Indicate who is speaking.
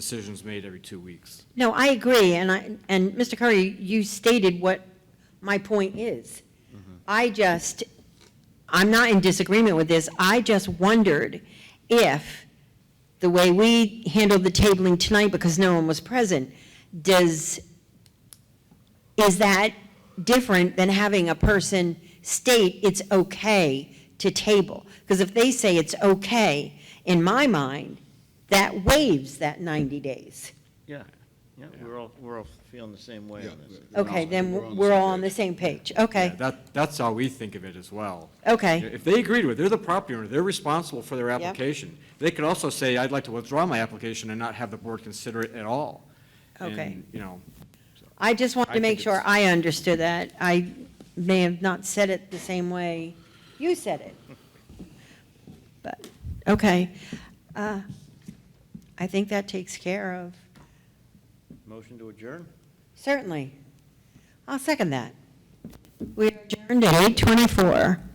Speaker 1: decisions made every two weeks.
Speaker 2: No, I agree, and I, and Mr. Curry, you stated what my point is. I just, I'm not in disagreement with this, I just wondered if the way we handled the tabling tonight, because no one was present, does, is that different than having a person state it's okay to table? Because if they say it's okay, in my mind, that waives that 90 days.
Speaker 3: Yeah, yeah, we're all, we're all feeling the same way
Speaker 4: Yeah,
Speaker 3: on this.
Speaker 4: we're
Speaker 2: Okay,
Speaker 4: on-
Speaker 2: then we're all on the
Speaker 4: page.
Speaker 2: same page.
Speaker 1: Yeah,
Speaker 2: Okay,
Speaker 1: That, that's how we think of it as well.
Speaker 2: okay,
Speaker 1: If they agreed with, it, they're the property owner, they're responsible for their
Speaker 2: Yep.
Speaker 1: application. They could also say, I'd like to withdraw my application and not have the board consider it at all.
Speaker 2: Okay.
Speaker 1: And, You know,
Speaker 2: I just wanted
Speaker 1: I
Speaker 2: to make
Speaker 1: think
Speaker 2: sure
Speaker 1: it's-
Speaker 2: I understood that. I may have not said it the same way you said it. But, okay. Uh, I think that takes care of,
Speaker 3: Motion to adjourn?
Speaker 2: certainly. I'll second that. We adjourned at 8:24.